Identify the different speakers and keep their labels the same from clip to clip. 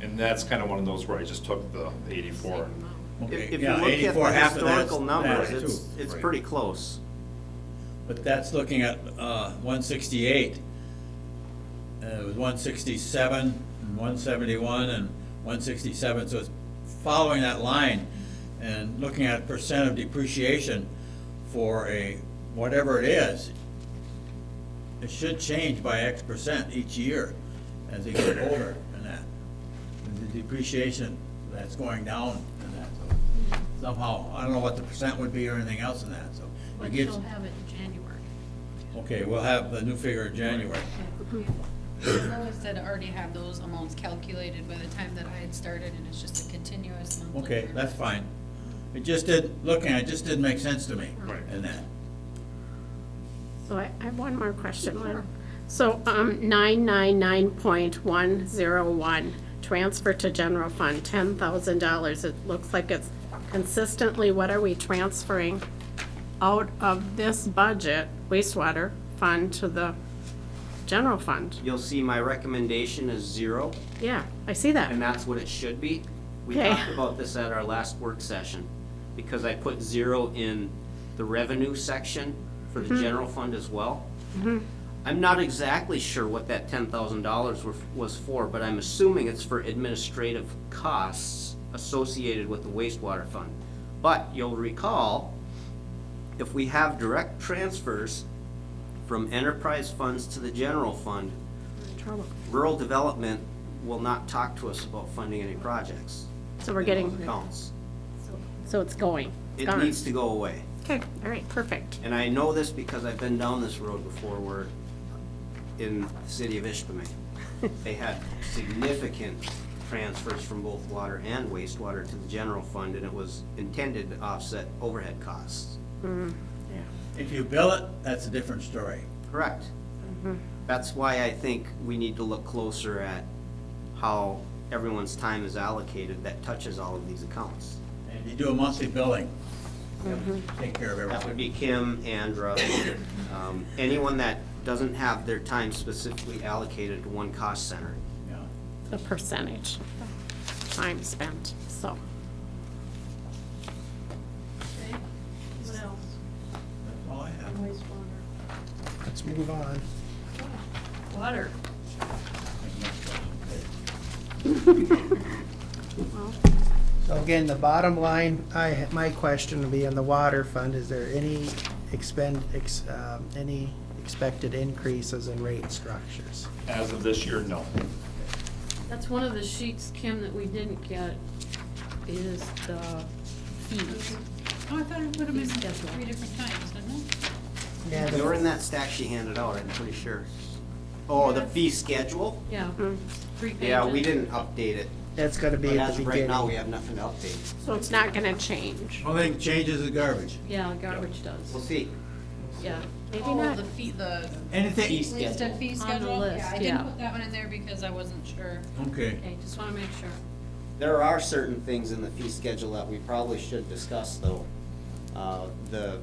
Speaker 1: And that's kind of one of those where I just took the eighty-four.
Speaker 2: If
Speaker 3: Okay,
Speaker 2: if you
Speaker 3: yeah,
Speaker 2: look at
Speaker 3: 84,
Speaker 2: the
Speaker 3: half of that's
Speaker 2: historical numbers,
Speaker 3: that,
Speaker 2: it's,
Speaker 3: too.
Speaker 2: it's
Speaker 1: Right.
Speaker 2: pretty close.
Speaker 3: But that's looking at uh, one sixty-eight. And it was one sixty-seven and one seventy-one and one sixty-seven, so it's following that line and looking at percent of depreciation for a, whatever it is, it should change by X percent each year as they get older and that. The depreciation, that's going down and that, so somehow, I don't know what the percent would be or anything else in that, so. it
Speaker 4: But
Speaker 3: gives-
Speaker 4: you'll have it in January.
Speaker 3: Okay, we'll have the new figure in January.
Speaker 4: Lois said already have those amounts calculated by the time that I had started, and it's just a continuous monthly.
Speaker 3: Okay,
Speaker 4: payment.
Speaker 3: that's fine. It just did, looking, at it just didn't make sense to me
Speaker 1: Right.
Speaker 3: in that.
Speaker 5: So I I have one more question,
Speaker 4: Sure.
Speaker 5: Lynn. So um, 999.101, transfer to general fund, $10,000. It looks like it's consistently, what are we transferring out of this budget wastewater fund to the general fund?
Speaker 2: You'll see my recommendation is zero,
Speaker 5: Yeah, I see that.
Speaker 2: and that's what it should be. We
Speaker 5: Okay.
Speaker 2: talked about this at our last work session, because I put zero in the revenue section for the
Speaker 5: Mm-hmm.
Speaker 2: general fund as well. I'm not exactly sure what that ten thousand dollars was for, but I'm assuming it's for administrative costs associated with the wastewater fund. But you'll recall, if we have direct transfers from enterprise funds to the general fund,
Speaker 5: Trouble.
Speaker 2: rural development will not talk to us about funding any projects.
Speaker 5: So we're
Speaker 2: in
Speaker 5: getting-
Speaker 2: those accounts.
Speaker 5: So it's going. It's
Speaker 2: It
Speaker 5: gone.
Speaker 2: needs to go away.
Speaker 5: Okay, all right, perfect.
Speaker 2: And I know this because I've been down this road before where in the city of Ishpeming, they had significant transfers from both water and wastewater to the general fund and it was intended to offset overhead costs.
Speaker 3: If you bill it, that's a different story.
Speaker 2: Correct.
Speaker 5: Mm-hmm.
Speaker 2: That's why I think we need to look closer at how everyone's time is allocated that touches all of these accounts.
Speaker 3: And you do a monthly billing,
Speaker 4: Mm-hmm.
Speaker 3: take care of
Speaker 2: That would
Speaker 3: everything.
Speaker 2: be Kim, Andra, um, anyone that doesn't have their time specifically allocated to one cost center.
Speaker 3: Yeah.
Speaker 5: The percentage, time spent, so.
Speaker 4: Okay. What else?
Speaker 3: That's all I have.
Speaker 4: Wastewater.
Speaker 6: Let's move on.
Speaker 4: Water.
Speaker 6: So again, the bottom line, I, my question would be on the water fund, is there any expend, ex- um, any expected increases in rate structures?
Speaker 1: As of this year, no.
Speaker 7: That's one of the sheets, Kim, that we didn't get, is the fees.
Speaker 4: Oh, I thought it would have been
Speaker 7: Yes, ma'am.
Speaker 4: three different times, didn't it?
Speaker 6: Yeah,
Speaker 2: They were in
Speaker 6: the-
Speaker 2: that stack she handed out, I'm pretty sure. Oh, the fee schedule?
Speaker 7: Yeah,
Speaker 5: Mm. Mm-hmm.
Speaker 7: three pages.
Speaker 2: Yeah, we didn't update it,
Speaker 6: that's gonna
Speaker 2: but
Speaker 6: be at
Speaker 2: as
Speaker 6: the
Speaker 2: of right now, we
Speaker 6: beginning.
Speaker 2: have nothing to update.
Speaker 5: So it's not going to change.
Speaker 3: Only thing changes is garbage.
Speaker 7: Yeah, garbage does,
Speaker 2: We'll see.
Speaker 7: yeah.
Speaker 5: Maybe
Speaker 4: Oh,
Speaker 5: not.
Speaker 4: the fee, the
Speaker 2: Fee
Speaker 3: Anything,
Speaker 4: least
Speaker 2: schedule.
Speaker 4: and fee
Speaker 7: On the
Speaker 4: schedule?
Speaker 7: list,
Speaker 4: Yeah, I
Speaker 7: yeah.
Speaker 4: didn't put that one in there because I wasn't sure.
Speaker 3: okay.
Speaker 7: Okay, just wanna make sure.
Speaker 2: There are certain things in the fee schedule that we probably should discuss, though. Uh, The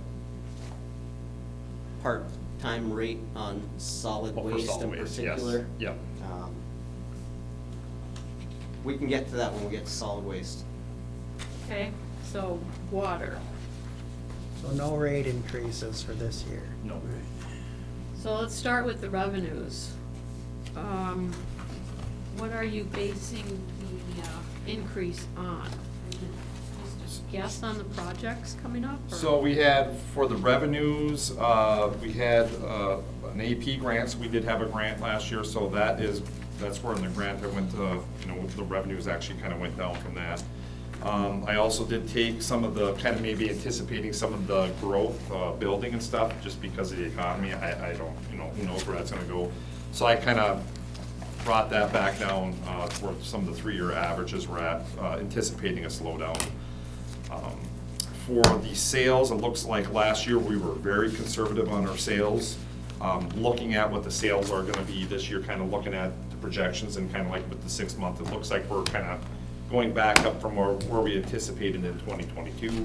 Speaker 2: part-time rate on solid
Speaker 1: Well, Oh, for
Speaker 2: waste
Speaker 1: solid
Speaker 2: in
Speaker 1: waste, yes.
Speaker 2: particular.
Speaker 1: Yep.
Speaker 2: Um, We can get to that when we get to solid waste.
Speaker 7: Okay, so water.
Speaker 6: So no rate increases for this year.
Speaker 1: No.
Speaker 7: So let's start with the revenues. Um, What are you basing the uh, increase on? Just a Guess on the projects coming up? or-
Speaker 1: So we had, for the revenues, uh, we had uh, an AP grant, so we did have a grant last year, so that is, that's where in the grant that went to, you know, the revenues actually kind of went down from that. Um, I also did take some of the, kind of maybe anticipating some of the growth, uh, building and stuff, just because of the economy, I, I don't, you know, who knows where that's gonna go. So I kind of brought that back down uh, toward some of the three-year averages we're at, uh, anticipating a slowdown. Um, For the sales, it looks like last year we were very conservative on our sales. Um, Looking at what the sales are gonna be this year, kind of looking at the projections and kind of like with the six month, it looks like we're kind of going back up from where, where we anticipated in 2022.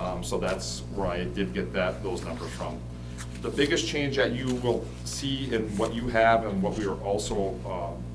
Speaker 1: Um, So that's where I did get that, those numbers from. The biggest change that you will see in what you have and what we are also um,